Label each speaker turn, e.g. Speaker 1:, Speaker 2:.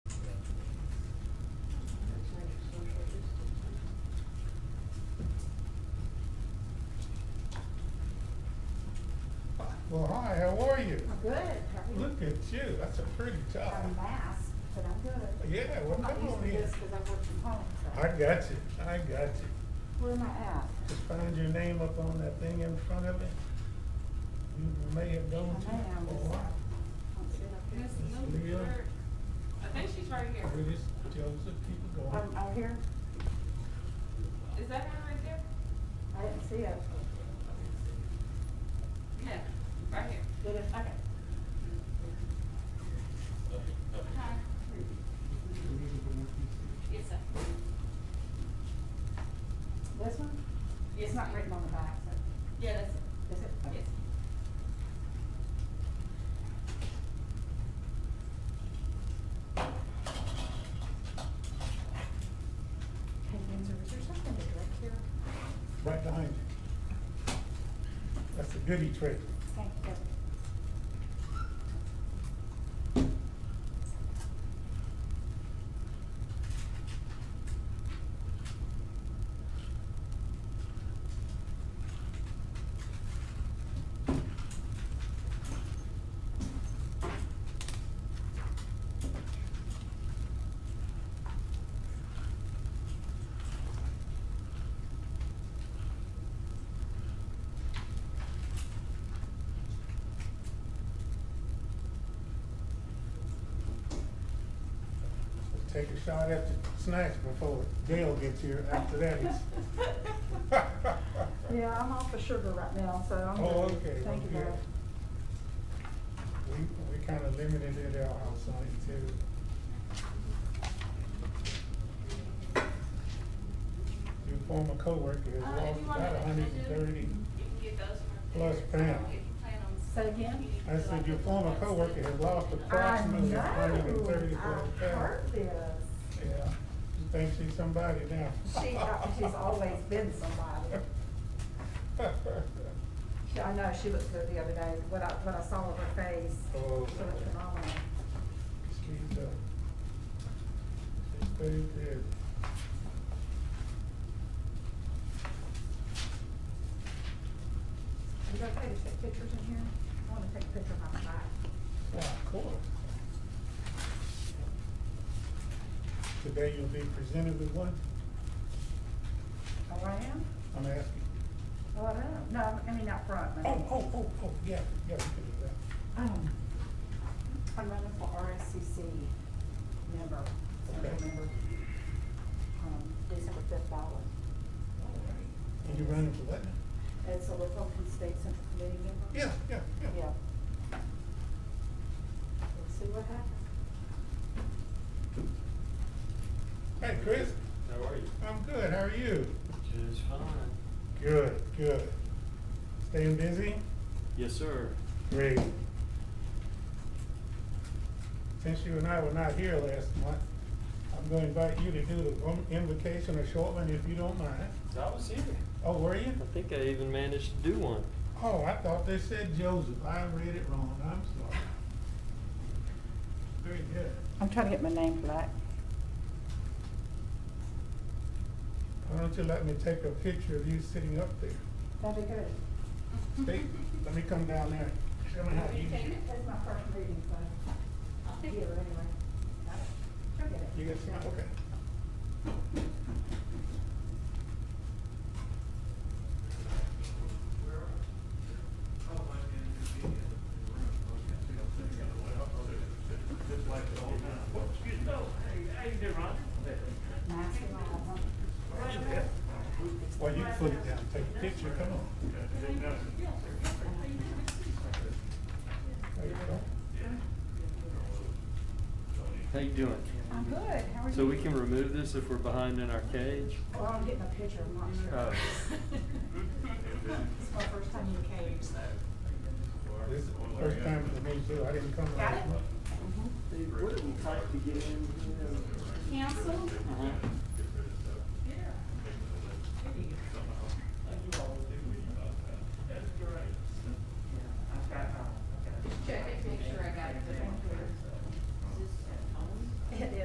Speaker 1: Well, hi, how are you?
Speaker 2: I'm good. How are you?
Speaker 1: Look at you, that's a pretty job.
Speaker 2: Got a mask, but I'm good.
Speaker 1: Yeah, well,
Speaker 2: I'm not
Speaker 1: Oh. come
Speaker 2: used
Speaker 1: on
Speaker 2: to
Speaker 1: in.
Speaker 2: this because I work from home, so.
Speaker 1: I got you, I got you.
Speaker 2: Where am I at?
Speaker 1: Just found your name up on that thing in front of it. You may have
Speaker 2: I
Speaker 1: gone to.
Speaker 2: may, I'm just,
Speaker 1: Oh,
Speaker 2: uh,
Speaker 1: wow.
Speaker 2: I'm sitting up here.
Speaker 3: Miss Lou,
Speaker 1: Leah.
Speaker 3: her- I think she's right here.
Speaker 1: Where is Joseph, keep it going.
Speaker 2: I'm out here.
Speaker 3: Is that her right there?
Speaker 2: I didn't see it.
Speaker 3: Yeah, right here.
Speaker 2: Did it? Okay.
Speaker 3: Hi. Yes, sir.
Speaker 2: This one?
Speaker 3: Yes,
Speaker 2: It's not written on the back, so.
Speaker 3: Yeah, that's it.
Speaker 2: Is it? Okay.
Speaker 3: Yes.
Speaker 2: Hey, Windsor, is there something to direct here?
Speaker 1: Right behind you. That's a goodie tray.
Speaker 2: Thank you.
Speaker 1: Take a shot at the snacks before Dale gets here after that. it's-
Speaker 2: Yeah, I'm off the sugar right now, so I'm
Speaker 1: Oh,
Speaker 2: good.
Speaker 1: okay,
Speaker 2: Thank you,
Speaker 1: okay.
Speaker 2: Dad.
Speaker 1: We, we kinda limited it at our house on it too. Your former coworker has
Speaker 3: Uh, if
Speaker 1: lost
Speaker 3: you want
Speaker 1: about
Speaker 3: to
Speaker 1: hundred and thirty.
Speaker 3: You can get those from.
Speaker 1: Plus
Speaker 3: there.
Speaker 1: Pam.
Speaker 3: If you plan on-
Speaker 2: Say again?
Speaker 3: you need to
Speaker 1: I
Speaker 3: do
Speaker 1: said
Speaker 3: like
Speaker 1: your
Speaker 3: a
Speaker 1: former
Speaker 3: one
Speaker 1: coworker
Speaker 3: step.
Speaker 1: has lost
Speaker 3: Uh,
Speaker 2: I
Speaker 1: approximately
Speaker 2: know.
Speaker 1: hundred and thirty
Speaker 2: I've
Speaker 1: pounds.
Speaker 2: heard this.
Speaker 1: Yeah, she thinks she's somebody now.
Speaker 2: She, uh, she's always been somebody. She- I know, she looked good the other day, what I, what I saw of her face, she
Speaker 1: Oh.
Speaker 2: looked phenomenal.
Speaker 1: She's, uh, she's very good.
Speaker 2: Is it okay to take pictures in here? I wanna take a picture of my back.
Speaker 1: Yeah, of course. Today you'll be presented with one,
Speaker 2: Oh, I am?
Speaker 1: I'm asking.
Speaker 2: Oh, I am. No, I mean out front, maybe.
Speaker 1: Oh, oh, oh, oh, yeah, yeah, we can do that.
Speaker 2: Um, I'm running for RSCC member,
Speaker 1: Okay.
Speaker 2: central member, um, December fifth ballot.
Speaker 1: And you're running for what now?
Speaker 2: It's a Republican State Central Committee member?
Speaker 1: Yeah, yeah, yeah.
Speaker 2: Yeah. Let's see what happens.
Speaker 1: Hey, Chris,
Speaker 4: How are you?
Speaker 1: I'm good, how are you?
Speaker 4: Just fine.
Speaker 1: Good, good. Staying busy?
Speaker 4: Yes, sir.
Speaker 1: Great. Since you and I were not here last month, I'm gonna invite you to do the one invocation or short one if you don't mind.
Speaker 4: I was here.
Speaker 1: Oh, were you?
Speaker 4: I think I even managed to do one.
Speaker 1: Oh, I thought they said Joseph, I read it wrong, I'm sorry. Very good.
Speaker 2: I'm trying to get my name black.
Speaker 1: Why don't you let me take a picture of you sitting up there?
Speaker 2: That'd be good.
Speaker 1: Steve, let me come down there, and show me how to use it.
Speaker 2: That's my first reading, so I'll figure it anyway. Forget
Speaker 1: You got some, okay.
Speaker 2: Nice and all, huh?
Speaker 1: Well, you can put it down, take a picture, come on. There you go.
Speaker 4: How you doing?
Speaker 2: I'm good, how are you?
Speaker 4: So we can remove this if we're behind in our cage?
Speaker 2: Well, I'm getting a picture, I'm not sure.
Speaker 4: Oh.
Speaker 2: It's my first time in cage, so.
Speaker 1: This is the first time for me too, I didn't come
Speaker 2: Got
Speaker 1: last
Speaker 2: it?
Speaker 1: month.
Speaker 4: What did we type to get in?
Speaker 2: Cancel?
Speaker 4: Uh-huh.